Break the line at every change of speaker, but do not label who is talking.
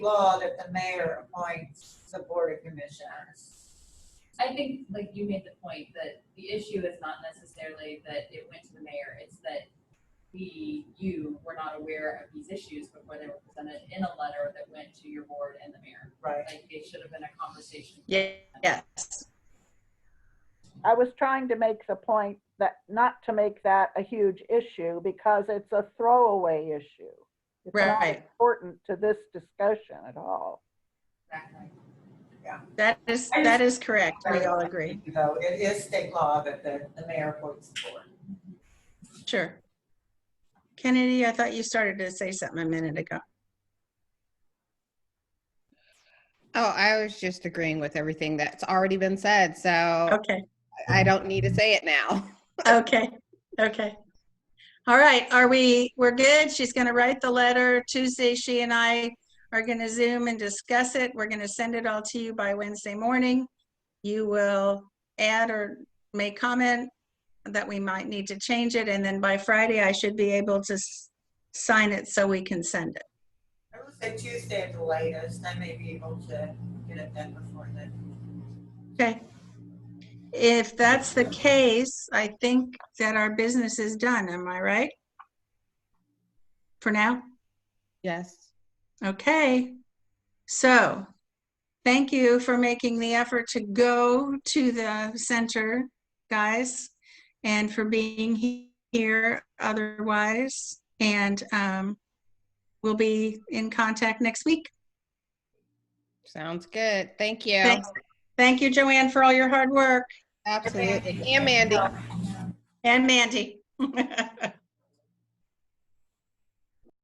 law that the mayor appoints the board of commissioners.
I think, like, you made the point that the issue is not necessarily that it went to the mayor, it's that we, you were not aware of these issues before they were presented in a letter that went to your board and the mayor.
Right.
Like, it should have been a conversation.
Yeah, yes.
I was trying to make the point that, not to make that a huge issue because it's a throwaway issue. It's not
Right.
important to this discussion at all.
Exactly.
That is,
I
that is correct. We all agree.
Though it is state law that the, the mayor appoints the board.
Sure. Kennedy, I thought you started to say something a minute ago.
Oh, I was just agreeing with everything that's already been said, so
Okay,
I don't need to say it now.
okay, okay. All right, are we, we're good? She's going to write the letter. Tuesday, she and I are going to Zoom and discuss it. We're going to send it all to you by Wednesday morning. You will add or make comment that we might need to change it, and then by Friday, I should be able to s- sign it so we can send it.
I would say Tuesday at the latest, I may be able to get it done before then.
Okay. If that's the case, I think that our business is done, am I right? For now?
Yes.
Okay. So, thank you for making the effort to go to the center, guys, and for being he- here otherwise. And um, we'll be in contact next week.
Sounds good. Thank you.
Thanks. Thank you, Joanne, for all your hard work.
Absolutely. And Mandy.
And Mandy.